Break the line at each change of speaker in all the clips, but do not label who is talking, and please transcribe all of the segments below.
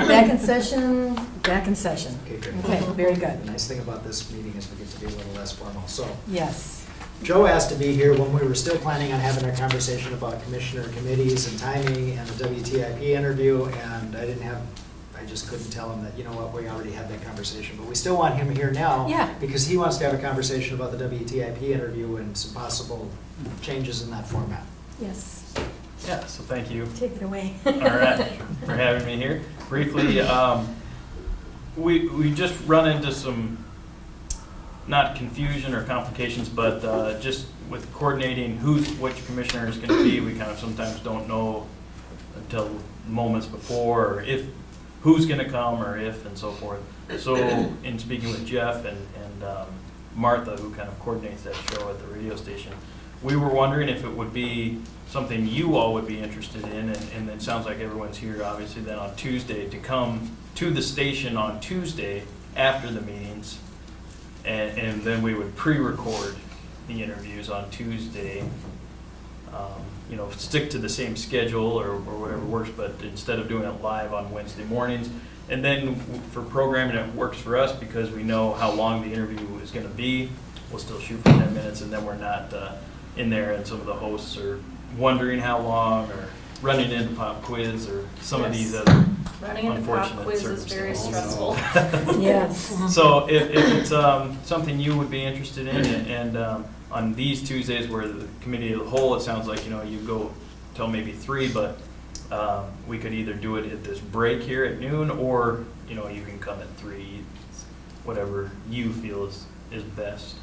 back in session, back in session.
Okay, good.
Okay, very good.
The nice thing about this meeting is we get to be a little less formal. So
Yes.
Joe asked to be here when we were still planning on having our conversation about commissioner committees and timing and the WTIP interview, and I didn't have, I just couldn't tell him that, you know what, we already had that conversation, but we still want him here now.
Yeah.
Because he wants to have a conversation about the WTIP interview and some possible changes in that format.
Yes.
Yeah, so thank you.
Take it away.
All right, for having me here. Briefly, um, we, we just run into some, not confusion or complications, but, uh, just with coordinating who's, which commissioner is gonna be, we kind of sometimes don't know until moments before, or if, who's gonna come, or if, and so forth. So, in speaking with Jeff and, and, um, Martha, who kind of coordinates that show at the radio station, we were wondering if it would be something you all would be interested in, and, and it sounds like everyone's here, obviously, then on Tuesday, to come to the station on Tuesday after the meetings, and, and then we would pre-record the interviews on Tuesday. Um, You know, stick to the same schedule or, or whatever works, but instead of doing it live on Wednesday mornings. And then for programming, it works for us because we know how long the interview is gonna be. We'll still shoot for ten minutes, and then we're not, uh, in there and some of the hosts are wondering how long or running into pop quiz or some of these other
Running into pop
Unfortunate
quiz is very
circumstances.
stressful.
Yes.
So if, if it's um, something you would be interested in, and- and um, on these Tuesdays where the committee of the whole, it sounds like, you know, you go till maybe three, but um, we could either do it at this break here at noon, or, you know, you can come at three, whatever you feel is, is best.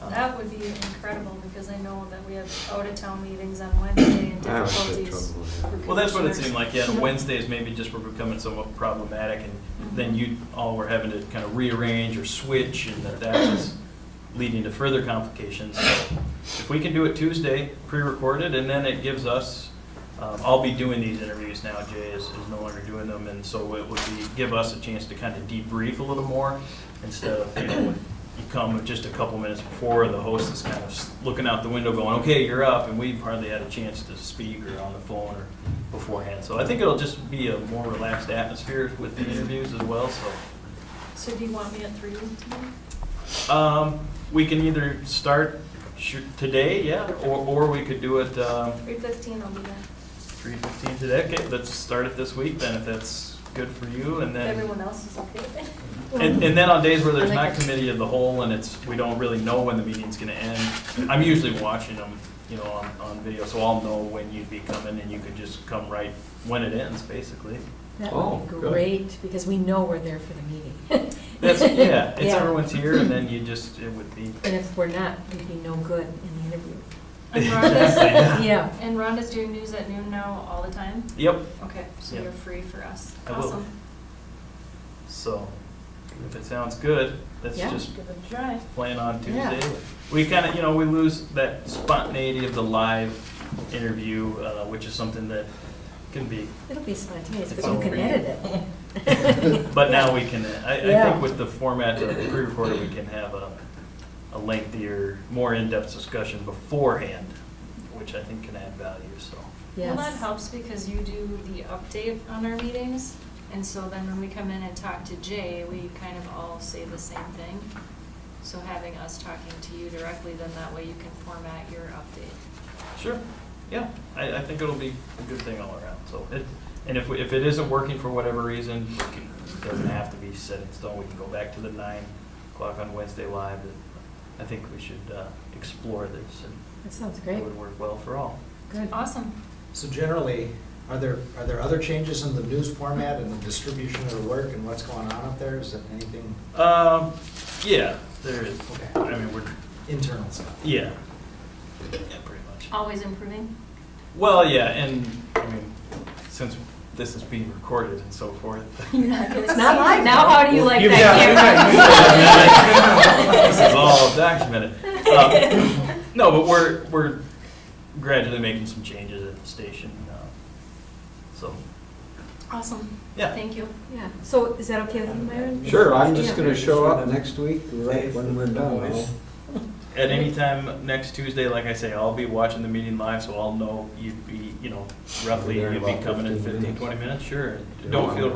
Um,
That would be incredible, because I know that we have out-of-town meetings on Wednesday and
I always had
difficulties.
trouble
for
with
Well, that's what it seemed like,
commissioners.
yeah, and Wednesdays maybe just were becoming somewhat problematic, and then you all were having to kind of rearrange or switch, and that that was leading to further complications. So If we can do it Tuesday, pre-recorded, and then it gives us, um, I'll be doing these interviews now, Jay is, is no longer doing them, and so it would be, give us a chance to kind of debrief a little more, instead of, you know, you come just a couple minutes before, the host is kind of looking out the window going, okay, you're up, and we've hardly had a chance to speak or on the phone or beforehand. So I think it'll just be a more relaxed atmosphere with the interviews as well, so.
So do you want me at three tomorrow?
Um, we can either start shoo- today, yeah, or, or we could do it, um,
Three fifteen, I'll be there.
three fifteen today. Okay, let's start it this week then, if that's good for you, and then.
Everyone else is okay with it?
And, and then on days where there's
I
not
like it.
committee of the whole and it's, we don't really know when the meeting's gonna end, I'm usually watching them, you know, on, on video, so I'll know when you'd be coming and you could just come right when it ends, basically.
That
Oh,
would be
good.
great, because we know we're there for the meeting.
That's, yeah, it's
Yeah.
everyone's here and then you just, it would be.
And if we're not, we'd be no good in the interview.
And Rhonda's,
Yeah.
and Rhonda's doing news at noon now all the time?
Yep,
Okay, so
Yeah.
you're free for us.
I will.
Awesome.
so, if it sounds good, let's
Yeah.
just
Give it a try.
plan on
Yeah.
Tuesday. We kind of, you know, we lose that spontaneity of the live interview, uh, which is something that can be
It'll be spontaneous, but
Fun
you can
for you.
edit it.
But now we can, I, I
Yeah.
think with the format of the pre-recorded, we can have a, a lengthier, more in-depth discussion beforehand, which I think can add value, so.
Well,
Yes.
that helps because you do the update on our meetings, and so then when we come in and talk to Jay, we kind of all say the same thing. So having us talking to you directly, then that way you can format your update.
Sure, yeah, I, I think it'll be a good thing all around, so it, and if, we- if it isn't working for whatever reason, we can- it doesn't have to be set in stone, we can go back to the nine o'clock on Wednesday live, and I think we should, uh, explore this, and
That sounds
it
great.
would work well for all.
Good.
Awesome.
So generally, are there, are there other changes in the news format and the distribution of the work and what's going on up there? Is it anything
Um, yeah, there is,
Okay.
I mean, we're,
internal stuff?
Yeah. Yeah, pretty much.
Always improving.
Well, yeah, and, I mean, since this is being recorded and so forth.
You're not gonna
It's not
see
live
it.
now, how do you like
Yeah,
that
yeah,
camera?
yeah. This is all documented. Um, No, but we're, we're gradually making some changes at the station, uh, so,
Awesome.
Yeah.
Thank you.
Yeah, so is that okay with you, Myron?
it. Sure, I'm just
Yeah.
gonna show up next week, right when we're done. I'll-
at any time next Tuesday, like I say, I'll be watching the meeting live, so I'll know you'd be, you know, roughly,
There in
you'd be
about
coming in
15
fifteen,
minutes.
twenty minutes, sure.
Yeah.
Don't feel